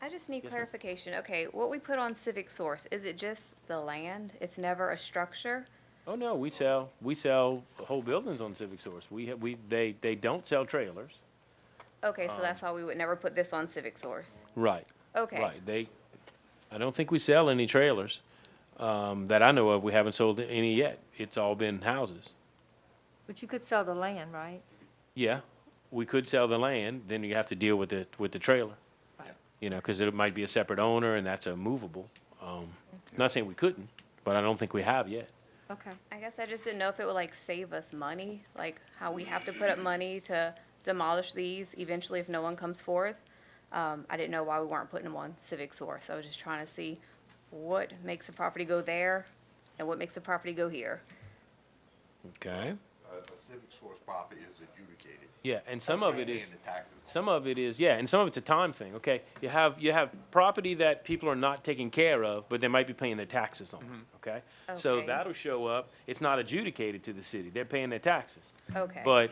I just need Yes, ma'am. clarification. Okay, what we put on Civic Source, is it just the land? It's never a structure? Oh, no, we sell, we sell whole buildings on Civic Source. We, have we, they, they don't sell trailers. Okay, so that's why we would never put this on Civic Source. Right. Okay. Um, Right, they, I don't think we sell any trailers, um, that I know of. We haven't sold any yet. It's all been houses. But you could sell the land, right? Yeah, we could sell the land, then you have to deal with the, with the trailer. Right. You know, cause it might be a separate owner and that's a movable. Um, not saying we couldn't, but I don't think we have yet. Okay. I guess I just didn't know if it would like save us money, like how we have to put up money to demolish these eventually if no one comes forth. Um, I didn't know why we weren't putting them on Civic Source. I was just trying to see what makes the property go there and what makes the property go here. Okay. A a civic source property is adjudicated. Yeah, and some of it Paying is, the taxes on. some of it is, yeah, and some of it's a time thing, okay? You have, you have property that people are not taking care of, but they might be paying their taxes on, okay? So Okay. that'll show up, it's not adjudicated to the city, they're paying their taxes. Okay. But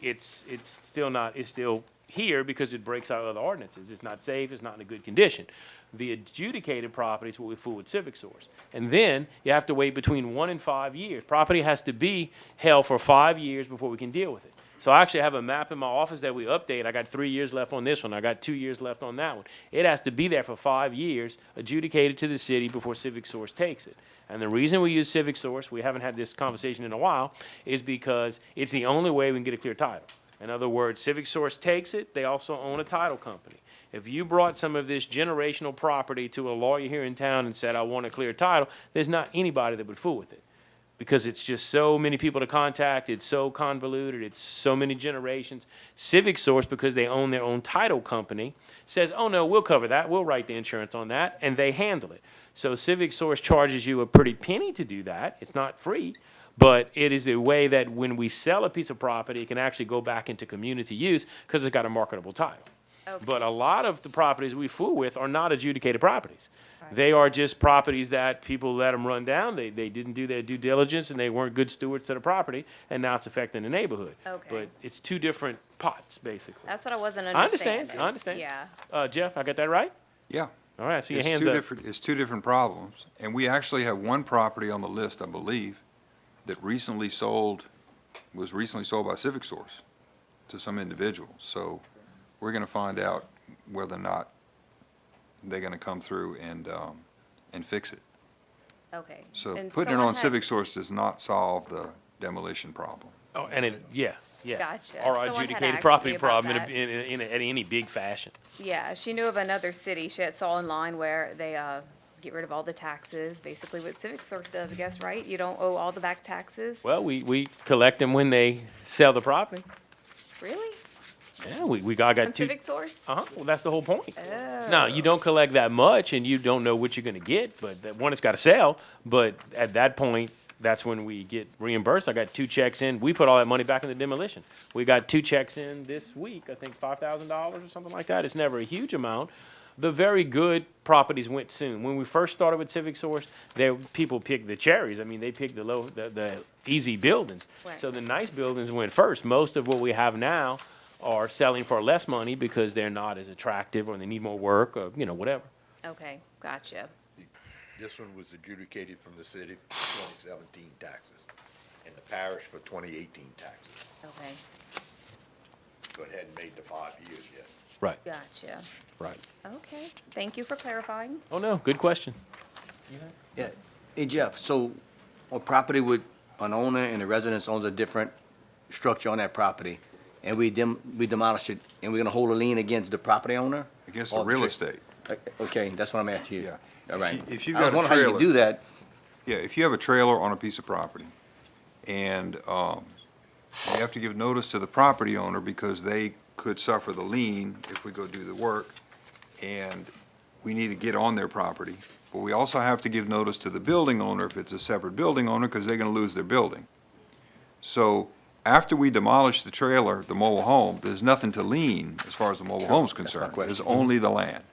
it's, it's still not, it's still here because it breaks out other ordinances. It's not safe, it's not in a good condition. The adjudicated property is what we fool with civic source. And then you have to wait between one and five years. Property has to be held for five years before we can deal with it. So I actually have a map in my office that we update. I got three years left on this one, I got two years left on that one. It has to be there for five years, adjudicated to the city before civic source takes it. And the reason we use Civic Source, we haven't had this conversation in a while, is because it's the only way we can get a clear title. In other words, Civic Source takes it, they also own a title company. If you brought some of this generational property to a lawyer here in town and said, I want a clear title, there's not anybody that would fool with it. Because it's just so many people to contact, it's so convoluted, it's so many generations. Civic Source, because they own their own title company, says, oh no, we'll cover that, we'll write the insurance on that, and they handle it. So Civic Source charges you a pretty penny to do that. It's not free, but it is a way that when we sell a piece of property, it can actually go back into community use because it's got a marketable title. But a lot of the properties we fool with are not adjudicated properties. They are just properties that people let them run down. They, they didn't do their due diligence and they weren't good stewards to the property, and now it's affecting the neighborhood. Okay. But it's two different pots, basically. That's what I wasn't I understand, understanding. I understand. Yeah. Uh, Jeff, I got that right? Yeah. All right, so your It's hands two up. different- It's two different problems, and we actually have one property on the list, I believe, that recently sold, was recently sold by Civic Source to some individual. So we're gonna find out whether or not they're gonna come through and, um, and fix it. Okay. So And putting it someone on had- Civic Source does not solve the demolition problem. Oh, and it, yeah, yeah. Gotcha. Or Someone had adjudicated asked me property about problem in, a- that. in, in, in any big fashion. Yeah, she knew of another city. She had saw online where they, uh, get rid of all the taxes, basically what Civic Source does, I guess, right? You don't owe all the back taxes. Well, we, we collect them when they sell the property. Really? Yeah, we, we got, On got two. Civic Source? Uh-huh, well, that's the whole point. No, you don't collect that much and you don't know what you're gonna get, but that, one, it's gotta sell, but at that point, that's when we get reimbursed. I got two checks in, we put all that money back in the demolition. We got two checks in this week, I think five thousand dollars or something like that. It's never a huge amount. The very good properties went soon. When we first started with Civic Source, there, people picked the cherries. I mean, they picked the low, the, the easy buildings. Right. So the nice buildings went first. Most of what we have now are selling for less money because they're not as attractive or they need more work or, you know, whatever. Okay, gotcha. This one was adjudicated from the city for twenty seventeen taxes and the parish for twenty eighteen taxes, Okay, but hadn't made the five years yet. Right, gotcha. right. Okay, thank you for clarifying. Oh, no, good question. Yeah. Hey Jeff, so a property with an owner and a residence owns a different structure on that property, and we dem, we demolish it, and we're gonna hold a lien against the property owner? Against Or the real tra- estate. Okay, that's what I'm after you. Yeah. All right. If you- if you've I was got a wondering how you could do that, Yeah, if you have a trailer on a piece of property, and um, you have to give notice to the property owner because they could suffer the lien if we go do the work, and we need to get on their property. But we also have to give notice to the building owner if it's a separate building owner, because they're gonna lose their building. So after we demolish the trailer, the mobile home, there's nothing to lien as far as the mobile home's that's my concerned. There's question. only the land.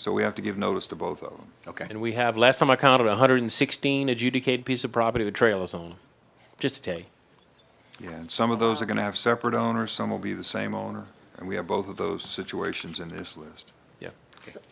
So we have to give notice to both of them. okay. And we have, last time I counted, hundred and sixteen adjudicated pieces of property with trailers on them, just to tell you. Yeah, and some of those are gonna have separate owners, some will be the same owner, and we have both of those situations in this list.